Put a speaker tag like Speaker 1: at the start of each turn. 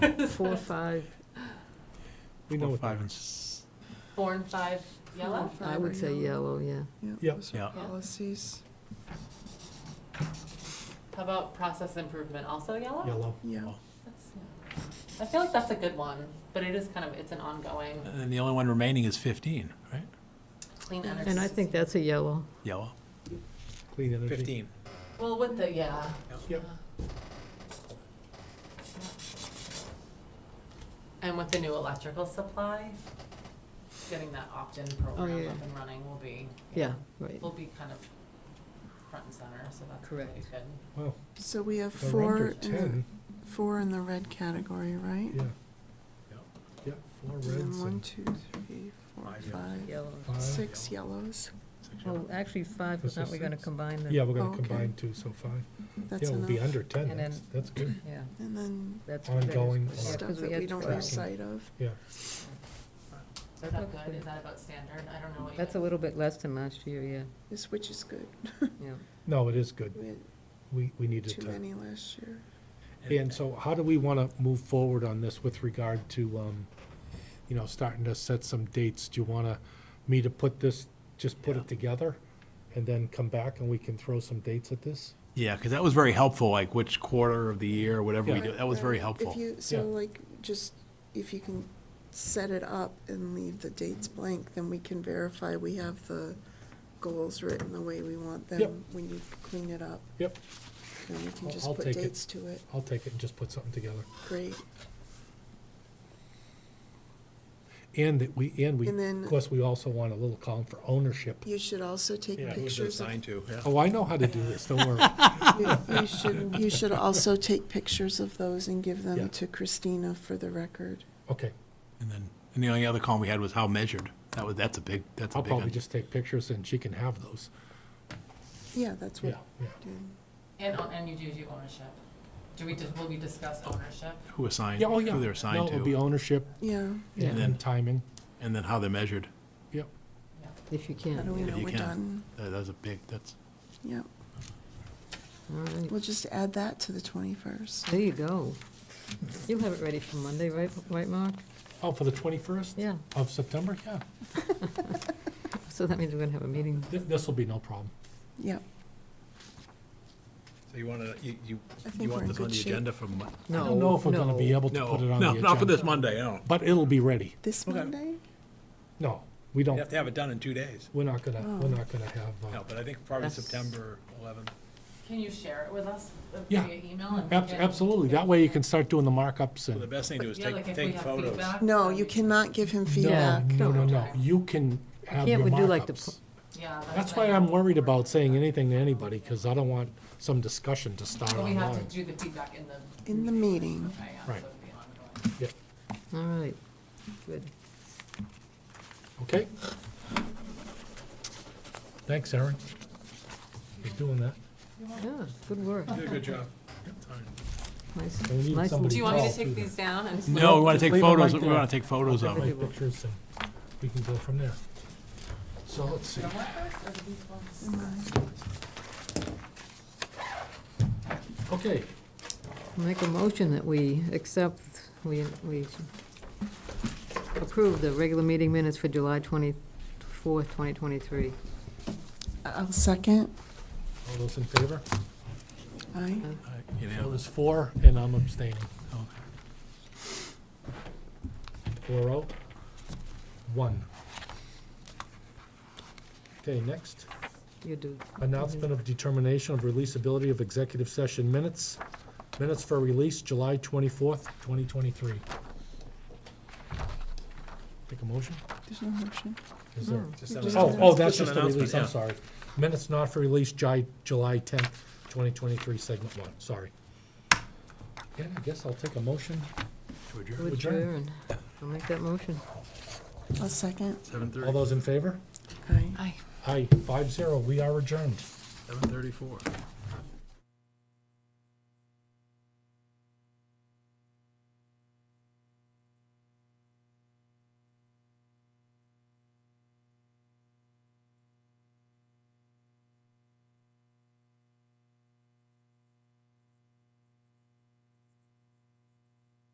Speaker 1: Four, five.
Speaker 2: We know
Speaker 3: Four,
Speaker 2: what that
Speaker 3: five, and
Speaker 2: is.
Speaker 3: s-
Speaker 4: Four and five yellow?
Speaker 1: I would say yellow, yeah.
Speaker 2: Yeah.
Speaker 5: Yeah, those are
Speaker 3: Yeah.
Speaker 5: policies,
Speaker 4: How about process improvement, also yellow?
Speaker 2: Yellow.
Speaker 5: yeah.
Speaker 4: That's- I feel like that's a good one, but it is kind of, it's an ongoing
Speaker 3: And then the only one remaining is 15, right?
Speaker 4: clean energy.
Speaker 1: And I
Speaker 4: system.
Speaker 1: think that's a yellow.
Speaker 3: Yellow.
Speaker 2: Clean energy.
Speaker 4: Well, with the, yeah.
Speaker 2: Yep.
Speaker 4: yeah. And with the new electrical supply, getting that opt-in
Speaker 5: Oh,
Speaker 4: program
Speaker 1: Oh, yeah.
Speaker 4: up and running will be.
Speaker 1: Yeah, right.
Speaker 4: Will be kind of front and center, so that's really
Speaker 1: Correct.
Speaker 4: good.
Speaker 2: Wow.
Speaker 5: So we have
Speaker 2: They're under
Speaker 5: four, uh, in
Speaker 2: 10.
Speaker 5: the- four in the red category, right?
Speaker 2: Yeah.
Speaker 3: Yep.
Speaker 2: Yep. Four
Speaker 5: And then
Speaker 2: reds
Speaker 5: one,
Speaker 2: and
Speaker 5: two, three, four,
Speaker 3: Five
Speaker 5: five,
Speaker 1: Yellow.
Speaker 2: five.
Speaker 5: six yellows.
Speaker 1: Well, actually five, but
Speaker 2: This
Speaker 1: aren't
Speaker 2: is
Speaker 1: we gonna
Speaker 2: six.
Speaker 1: combine them?
Speaker 2: Yeah, we're
Speaker 5: Oh,
Speaker 2: gonna
Speaker 5: okay.
Speaker 2: combine two, so five.
Speaker 5: That's
Speaker 2: Yeah, we'll be
Speaker 5: enough.
Speaker 2: under ten.
Speaker 1: And
Speaker 2: That's,
Speaker 1: then-
Speaker 2: that's good.
Speaker 1: Yeah,
Speaker 5: And then
Speaker 1: that's.
Speaker 2: Ongoing
Speaker 1: better. Yeah,
Speaker 5: stuff
Speaker 1: 'cause we
Speaker 5: that
Speaker 1: had
Speaker 5: we don't
Speaker 1: tracking.
Speaker 5: lose sight of.
Speaker 2: Yeah.
Speaker 4: Is that good? Is that about standard? I don't know what you.
Speaker 1: That's a little bit less than last year, yeah,
Speaker 5: This, which is good.
Speaker 1: yeah.
Speaker 2: No, it is good.
Speaker 5: We had
Speaker 2: We, we needed
Speaker 5: too
Speaker 2: to.
Speaker 5: many last year.
Speaker 2: And so how do we wanna move forward on this with regard to, um, you know, starting to set some dates? Do you wanna me to put this, just put
Speaker 3: Yeah.
Speaker 2: it together? And then come back and we can throw some dates at this?
Speaker 3: Yeah, because that was very helpful, like which quarter of the year, whatever we
Speaker 2: Yeah.
Speaker 3: do, that was very
Speaker 5: Right.
Speaker 3: helpful.
Speaker 5: If you, so
Speaker 2: Yeah.
Speaker 5: like, just, if you can set it up and leave the dates blank, then we can verify we have the goals written the way we want
Speaker 2: Yep.
Speaker 5: them when you clean it up.
Speaker 2: Yep,
Speaker 5: Then we can
Speaker 2: I'll-
Speaker 5: just
Speaker 2: I'll
Speaker 5: put
Speaker 2: take it.
Speaker 5: dates to it.
Speaker 2: I'll take it and just put something together.
Speaker 5: Great.
Speaker 2: And that we, and we,
Speaker 5: And then-
Speaker 2: of course, we also want a little column for ownership.
Speaker 5: You should also take pictures of,
Speaker 3: to?
Speaker 2: Oh, I know how to do this, don't worry.
Speaker 5: you you should, you should also take pictures of those and give
Speaker 2: Yeah.
Speaker 5: them to Christina for the record.
Speaker 2: Okay,
Speaker 3: And then, and the only other column we had was how measured. That was, that's a big, that's a
Speaker 2: I'll
Speaker 3: big one.
Speaker 2: probably just take pictures and she can have those.
Speaker 5: Yeah, that's
Speaker 2: Yeah,
Speaker 5: what,
Speaker 2: yeah.
Speaker 4: And, on- and you do do ownership. Do we, dis- will we discuss ownership?
Speaker 3: Who assigned,
Speaker 2: Yeah, oh, yeah.
Speaker 3: who they're
Speaker 2: No,
Speaker 3: assigned
Speaker 2: It'll be
Speaker 3: to,
Speaker 2: ownership
Speaker 5: yeah,
Speaker 1: Yeah.
Speaker 2: and then timing.
Speaker 3: and then how they're measured.
Speaker 2: Yep,
Speaker 1: If you
Speaker 5: how do
Speaker 1: can,
Speaker 5: we
Speaker 3: Yeah,
Speaker 5: know
Speaker 3: you
Speaker 5: we're
Speaker 3: can.
Speaker 5: done?
Speaker 3: That, that's a big, that's,
Speaker 5: Yeah,
Speaker 1: all right.
Speaker 5: we'll just add that to the twenty-first.
Speaker 1: There you go. You have it ready for Monday, right, right, Mark?
Speaker 2: oh, for the twenty-first?
Speaker 1: Yeah,
Speaker 2: Of September, yeah.
Speaker 1: so that means we're gonna have a meeting.
Speaker 2: Thi- This'll be no problem.
Speaker 5: Yeah,
Speaker 3: so you want to, you, you,
Speaker 5: I think we're in good shape.
Speaker 3: for? Mon-
Speaker 2: I don't know if we're gonna be able to
Speaker 3: No,
Speaker 2: put it on the
Speaker 3: no,
Speaker 2: agenda.
Speaker 3: not for this Monday, no.
Speaker 2: But it'll be ready.
Speaker 5: This
Speaker 3: Okay.
Speaker 5: Monday?
Speaker 2: No, we don't,
Speaker 3: You have to have it done in two days.
Speaker 2: we're not gonna, we're
Speaker 5: Oh.
Speaker 2: not gonna have, uh,
Speaker 3: No, but I think probably
Speaker 1: That's-
Speaker 3: September 11th.
Speaker 4: Can you share it with us uh,
Speaker 2: Yeah.
Speaker 4: via email? and we
Speaker 2: ab-
Speaker 4: can-
Speaker 2: absolutely. That way you can start doing the markups
Speaker 3: So the
Speaker 2: and,
Speaker 3: best thing to do is
Speaker 4: Yeah, like
Speaker 3: take,
Speaker 4: if we
Speaker 3: take
Speaker 4: have
Speaker 3: photos.
Speaker 4: feedback.
Speaker 5: No,
Speaker 4: then
Speaker 5: you
Speaker 4: we-
Speaker 5: cannot give him
Speaker 2: no,
Speaker 5: feedback.
Speaker 2: no, no, no.
Speaker 4: No.
Speaker 2: You can have your
Speaker 1: Can't we do like the
Speaker 2: markups.
Speaker 4: Yeah.
Speaker 2: That's
Speaker 4: what
Speaker 2: why
Speaker 4: I-
Speaker 2: I'm worried about saying anything to anybody, because I don't want some discussion to start
Speaker 4: But we have
Speaker 2: online.
Speaker 4: to do the feedback in the.
Speaker 5: In the meeting,
Speaker 4: Okay, yeah, so
Speaker 2: Right.
Speaker 4: it'll be ongoing.
Speaker 2: Yeah.
Speaker 1: All right, good.
Speaker 2: Okay? Thanks, Aaron, for doing that.
Speaker 1: Yeah, good work.
Speaker 3: Did a good job.
Speaker 1: Nice,
Speaker 2: We need
Speaker 1: nice.
Speaker 2: somebody
Speaker 4: Do you want me to
Speaker 2: Well,
Speaker 4: take
Speaker 2: do that.
Speaker 4: these down and?
Speaker 3: No, we want
Speaker 2: Just
Speaker 3: to take
Speaker 2: leave it
Speaker 3: photos,
Speaker 2: like
Speaker 3: we
Speaker 2: that.
Speaker 3: want to take photos of
Speaker 2: I'll
Speaker 3: it.
Speaker 2: take pictures and we can go from there. So let's see.
Speaker 4: Homework first or do these ones?
Speaker 2: Okay,
Speaker 1: Make a motion that we accept, we, we approve the regular meeting minutes for July twenty-fourth, twenty twenty-three.
Speaker 5: I'll second.
Speaker 2: all those in favor?
Speaker 5: Aye.
Speaker 3: You
Speaker 2: So
Speaker 3: know,
Speaker 2: there's four and I'm abstaining. Four oh, one. Okay, next.
Speaker 1: You do.
Speaker 2: Announcement of determination of releasability of executive session minutes. Minutes for release, July twenty-fourth, twenty twenty-three. Take a motion?
Speaker 5: There's no motion.
Speaker 2: Is there?
Speaker 3: Just an
Speaker 2: Oh, oh, that's
Speaker 3: Just
Speaker 2: just
Speaker 3: an
Speaker 2: a release, I'm
Speaker 3: announcement,
Speaker 2: sorry. Minutes not for release, July, July tenth, twenty twenty-three, segment one, sorry. Yeah, I guess I'll take a motion.
Speaker 3: Would you-
Speaker 1: To Adjourn. I'll make that motion.
Speaker 5: I'll second.
Speaker 3: 7:30
Speaker 2: All those in favor?
Speaker 5: Aye.
Speaker 4: Aye.
Speaker 2: Aye, five zero, we are adjourned.
Speaker 3: 7:34.